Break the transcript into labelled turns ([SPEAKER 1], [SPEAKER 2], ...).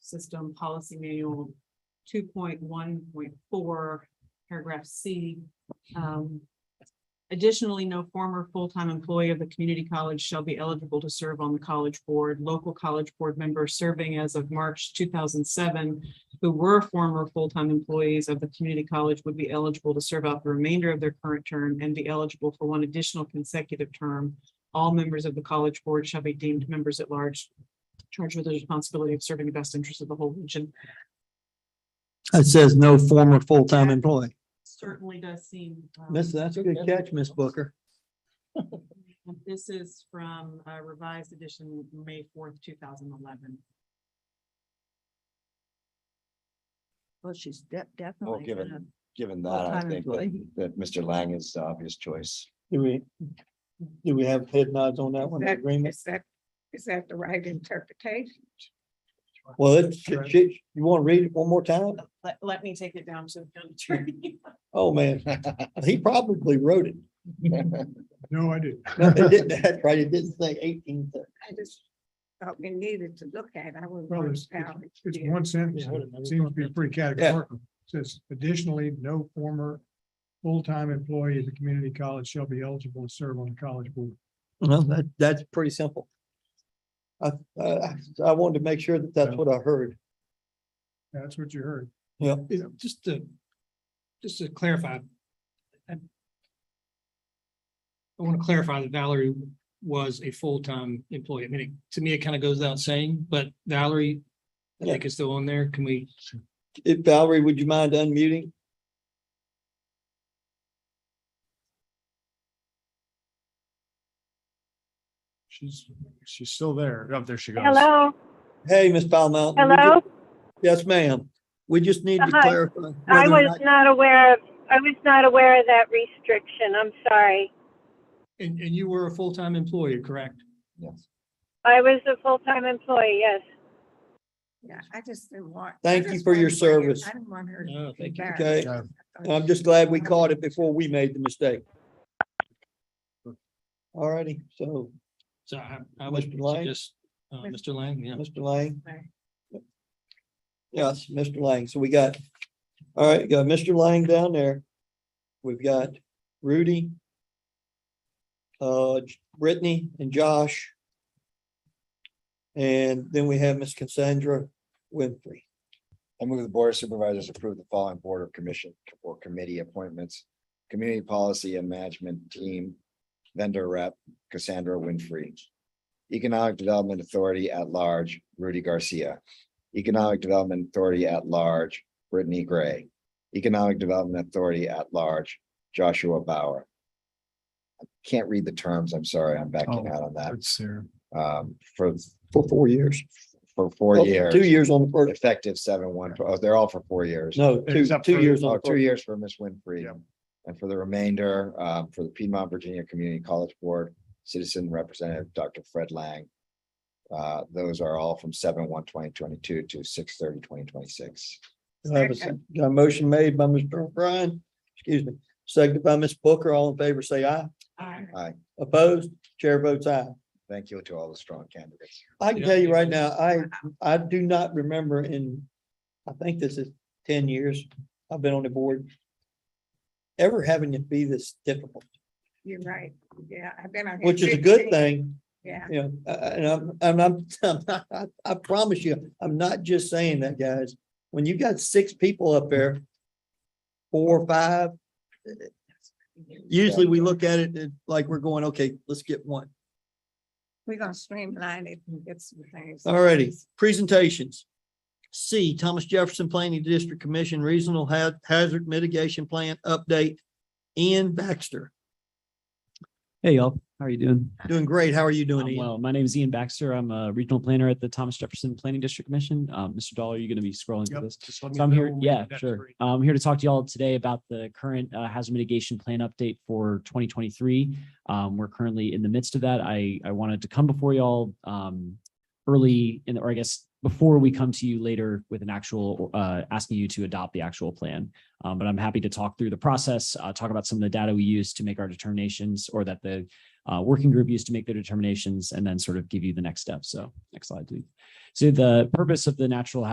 [SPEAKER 1] system policy manual two point one point four, paragraph C. Um, Additionally, no former full-time employee of the community college shall be eligible to serve on the college board. Local college board members serving as of March two thousand seven who were former full-time employees of the community college would be eligible to serve out the remainder of their current term and be eligible for one additional consecutive term. All members of the college board shall be deemed members at large, charged with the responsibility of serving the best interest of the whole region.
[SPEAKER 2] It says no former full-time employee.
[SPEAKER 1] Certainly does seem.
[SPEAKER 3] Oh,
[SPEAKER 1] um,
[SPEAKER 2] That's, that's a good catch, Miss Booker.
[SPEAKER 1] This is from uh, revised edition, May fourth, two thousand eleven.
[SPEAKER 4] Well, she's de-
[SPEAKER 5] Well,
[SPEAKER 4] definitely.
[SPEAKER 5] given-
[SPEAKER 4] gonna-
[SPEAKER 5] Given that, I
[SPEAKER 4] full-time
[SPEAKER 5] think that,
[SPEAKER 4] employee.
[SPEAKER 5] that Mr. Lang is the obvious choice.
[SPEAKER 2] Do we, do we have head nods on that one,
[SPEAKER 3] That-
[SPEAKER 2] agreement?
[SPEAKER 3] Is that, is that the right interpretation?
[SPEAKER 2] Well, it, she- she- you want to read it one more time?
[SPEAKER 1] Let, let me take it down to the county attorney.
[SPEAKER 2] Oh, man, he probably wrote it.
[SPEAKER 6] No, I didn't.
[SPEAKER 2] No, it didn't, that's right, it didn't say eighteen.
[SPEAKER 3] I just thought we needed to look at. it. I was.
[SPEAKER 6] Well, it's, it's- it's one sentence,
[SPEAKER 2] Yeah, I wouldn't- I
[SPEAKER 6] it seems to be pretty categorical. Says additionally, no former full-time employee of the community college shall be eligible to serve on the college board.
[SPEAKER 2] Well, that, that's pretty simple. I, I, I wanted to make sure that that's what I heard.
[SPEAKER 6] That's what you heard.
[SPEAKER 2] Yeah.
[SPEAKER 7] you know, just to, just to clarify. I want to clarify that Valerie was a full-time employee. I mean, it- to me, it kind of goes without saying, but Valerie, I think is still on there. Can we?
[SPEAKER 2] If Valerie, would you mind unmuting?
[SPEAKER 6] She's, she's still there. Up Oh, there she goes.
[SPEAKER 8] Hello,
[SPEAKER 2] Hey, Miss Palmount. we ju-
[SPEAKER 8] hello.
[SPEAKER 2] Yes, ma'am. We just need to
[SPEAKER 8] Hi.
[SPEAKER 2] clarify.
[SPEAKER 8] I
[SPEAKER 2] whether or
[SPEAKER 8] was
[SPEAKER 2] not-
[SPEAKER 8] not aware of, I was not aware of that restriction. I'm sorry.
[SPEAKER 7] And, and you were a full-time employee, correct?
[SPEAKER 5] Yes.
[SPEAKER 8] I was a full-time employee, yes.
[SPEAKER 3] Yeah, I just didn't want. I
[SPEAKER 2] Thank you
[SPEAKER 3] just
[SPEAKER 2] for your
[SPEAKER 3] wanted to Uh, bring it-
[SPEAKER 2] service.
[SPEAKER 3] I didn't want her.
[SPEAKER 7] No, thank you.
[SPEAKER 3] embarrassed.
[SPEAKER 2] Okay,
[SPEAKER 3] I thought
[SPEAKER 2] I'm just glad we caught it before we made the mistake. All righty, so,
[SPEAKER 7] So I, I would
[SPEAKER 2] Mr. Lang?
[SPEAKER 7] just, uh, Mr. Lang, yeah.
[SPEAKER 2] Mr. Lang.
[SPEAKER 3] Lang.
[SPEAKER 2] Yes, Mr. Lang, so we got, all right, got Mr. Lang down there. We've got Rudy. Uh, Brittany and Josh. And then we have Miss Cassandra Winfrey.
[SPEAKER 5] I move the board of supervisors approve the following board of commission or committee appointments. Community Policy and Management Team, Vendor Rep Cassandra Winfrey. Economic Development Authority at Large Rudy Garcia. Economic Development Authority at Large Brittany Gray. Economic Development Authority at Large Joshua Bauer. I Can't read the terms. I'm sorry. I'm backing out on that.
[SPEAKER 6] It's there.
[SPEAKER 5] um, for,
[SPEAKER 2] Oh. For four years.
[SPEAKER 5] for four
[SPEAKER 2] Oh, Two
[SPEAKER 5] years,
[SPEAKER 2] years on the first,
[SPEAKER 5] effective seven one, oh, they're all for four years.
[SPEAKER 2] no, two,
[SPEAKER 6] Except
[SPEAKER 2] two
[SPEAKER 6] for-
[SPEAKER 2] years on
[SPEAKER 5] Oh,
[SPEAKER 2] the
[SPEAKER 5] two
[SPEAKER 2] first.
[SPEAKER 5] years for Miss Winfrey.
[SPEAKER 6] Yep.
[SPEAKER 5] And for the remainder, um, for the Piedmont Virginia Community College Board, Citizen Representative Dr. Fred Lang. Uh, those are all from seven one twenty twenty-two to six thirty twenty twenty-six.
[SPEAKER 2] Do I have a
[SPEAKER 3] Second.
[SPEAKER 2] sec- got a motion made by Mr. O'Brien, excuse me, seconded by Ms. Booker, all in favor, say aye.
[SPEAKER 1] Aye.
[SPEAKER 5] Aye.
[SPEAKER 2] Opposed, chair votes aye.
[SPEAKER 5] Thank you to all the strong candidates.
[SPEAKER 2] I can
[SPEAKER 7] Yeah.
[SPEAKER 2] tell you right now, I, I do not remember in, I think this is ten years I've been on the board. Ever having it be this difficult,
[SPEAKER 3] You're right. Yeah, I've been on. here
[SPEAKER 2] which is a good
[SPEAKER 3] 15.
[SPEAKER 2] thing,
[SPEAKER 3] Yeah,
[SPEAKER 2] you know, uh, uh, and I'm, and I'm, I'm not- I, I promise you, I'm not just saying that, guys. When you got six people up there, four or five. Usually we look at it and like we're going, okay, let's get one.
[SPEAKER 3] we're gonna streamline it and get some things.
[SPEAKER 2] Alrighty, presentations. C, Thomas Jefferson Planning District Commission Regional Ha- Hazard Mitigation Plan Update. Ian Baxter,
[SPEAKER 9] Hey y'all, how are you doing?
[SPEAKER 2] doing great. How are you doing?
[SPEAKER 9] I'm
[SPEAKER 2] Ian?
[SPEAKER 9] well, my name is Ian Baxter. I'm a regional planner at the Thomas Jefferson Planning District Commission. Um, Mr. Dahl, are you gonna be scrolling through
[SPEAKER 6] Yep,
[SPEAKER 9] this?
[SPEAKER 6] just let me
[SPEAKER 9] So I'm
[SPEAKER 6] know
[SPEAKER 9] here,
[SPEAKER 6] when
[SPEAKER 9] yeah,
[SPEAKER 6] that's
[SPEAKER 9] sure.
[SPEAKER 6] ready.
[SPEAKER 9] I'm here to talk to y'all today about the current uh, hazard mitigation plan update for twenty twenty-three. Um, we're currently in the midst of that. I, I wanted to come before y'all, um, early in, or I guess before we come to you later with an actual, uh, asking you to adopt the actual plan. Um, but I'm happy to talk through the process, uh, talk about some of the data we use to make our determinations or that the uh, working group used to make their determinations and then sort of give you the next step. So next slide, please. So the purpose of the natural